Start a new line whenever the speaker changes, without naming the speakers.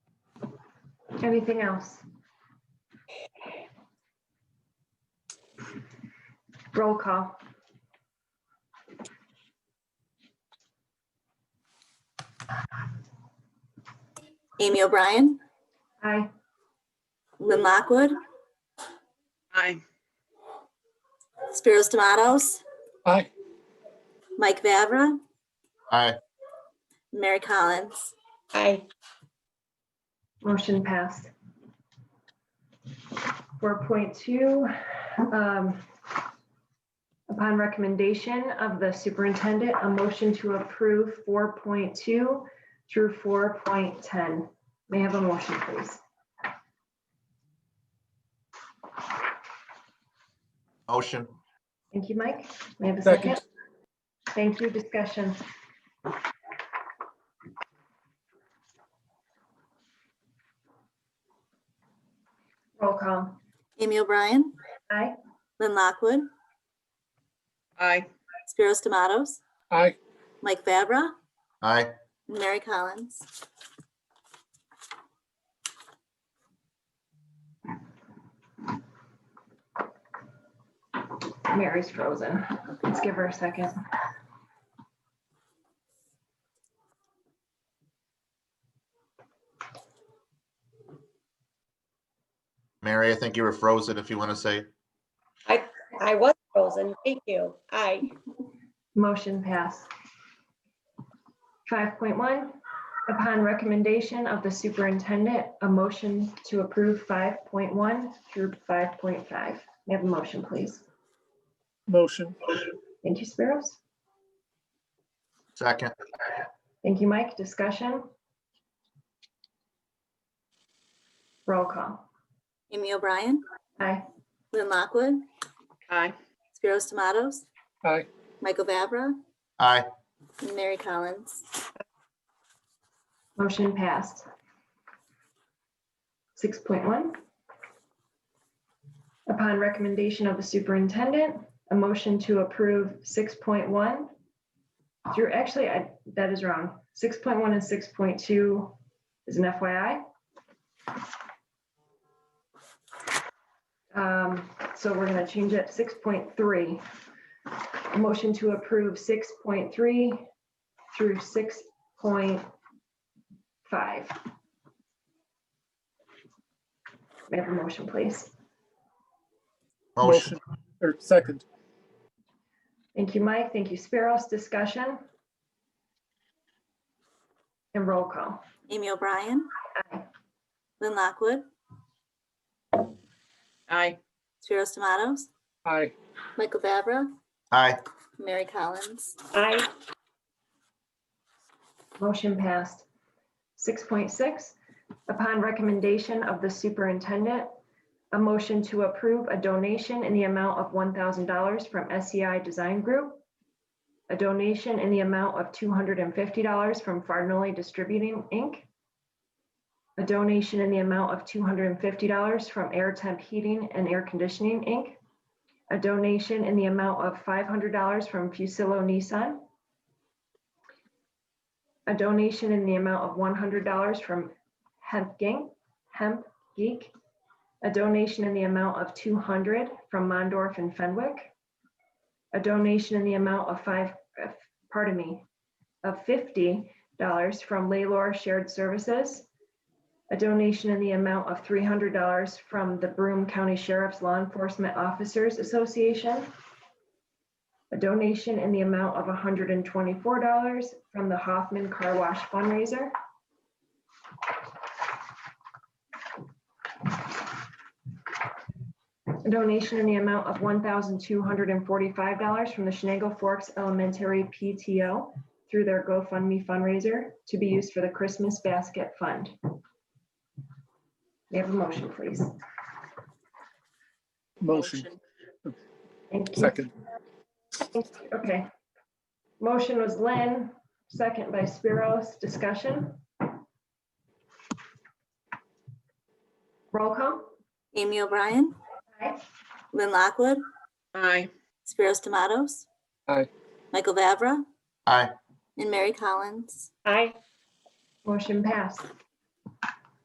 Anything else? Roll call.
Amy O'Brien,
Aye.
Lynn Lockwood,
Aye.
Spiros Tomatoes,
Aye.
Mike Vavra,
Aye.
Mary Collins.
Aye.
Motion passed. Four point two. um, Upon recommendation of the superintendent, a motion to approve four point two through four point ten. May I have a motion, please?
Motion.
Thank you, Mike. May I have a
Second.
second? Thank you. Discussion. Roll call.
Amy O'Brien,
Aye.
Lynn Lockwood,
Aye.
Spiros Tomatoes,
Aye.
Mike Vavra,
Aye.
and Mary Collins.
Mary's frozen. Let's give her a second.
Mary, I think you were frozen if you want to say.
I was frozen. Thank you. Aye.
Motion passed. Five point one, upon recommendation of the superintendent, a motion to approve five point one through five point five. May I have a motion, please?
Motion.
Thank you, Spiros.
Second.
Thank you, Mike. Discussion? Roll call.
Amy O'Brien,
Aye.
Lynn Lockwood,
Aye.
Spiros Tomatoes,
Aye.
Michael Vavra,
Aye.
and Mary Collins.
Motion passed. Six point one. Upon recommendation of the superintendent, a motion to approve six point one through, actually, I, that is wrong. Six point one and six point two is an FYI. Um, so we're gonna change it, six point three. Motion to approve six point three through six point five. May I have a motion, please?
Motion.
Or Er, second.
Thank you, Mike. Thank you, Spiros. Discussion? And roll call.
Amy O'Brien,
Aye.
Lynn Lockwood,
Aye.
Spiros Tomatoes,
Aye.
Michael Vavra,
Aye.
Mary Collins.
Aye.
Motion passed. Six point six, upon recommendation of the superintendent, a motion to approve a donation in the amount of one thousand dollars from SEI Design Group, a donation in the amount of two hundred and fifty dollars from Farnolay Distributing, Inc., a donation in the amount of two hundred and fifty dollars from Air Temp Heating and Air Conditioning, Inc., a donation in the amount of five hundred dollars from Fusillo Nissan, a donation in the amount of one hundred dollars from Hemp Gang, Hemp Geek, a donation in the amount of two hundred dollars from Mondorf and Fenwick, a donation in the amount of five, uh, pardon me, of fifty dollars from Laylor Shared Services, a donation in the amount of three hundred dollars from the Broome County Sheriff's Law Enforcement Officers Association, a donation in the amount of $124 from the Hoffman Car Wash fundraiser. A donation in the amount of $1,245 from the Shenango Forks Elementary PTO through their GoFundMe fundraiser to be used for the Christmas Basket Fund. May I have a motion, please?
Motion.
Thank you.
Second.
Okay. Motion was Lynn, second by Spiros. Discussion? Roll call?
Amy O'Brien,
Aye.
Lynn Lockwood,
Aye.
Spiros Tomatoes.
Aye.
Michael Vavra
Aye.
and Mary Collins.
Aye.
Motion passed.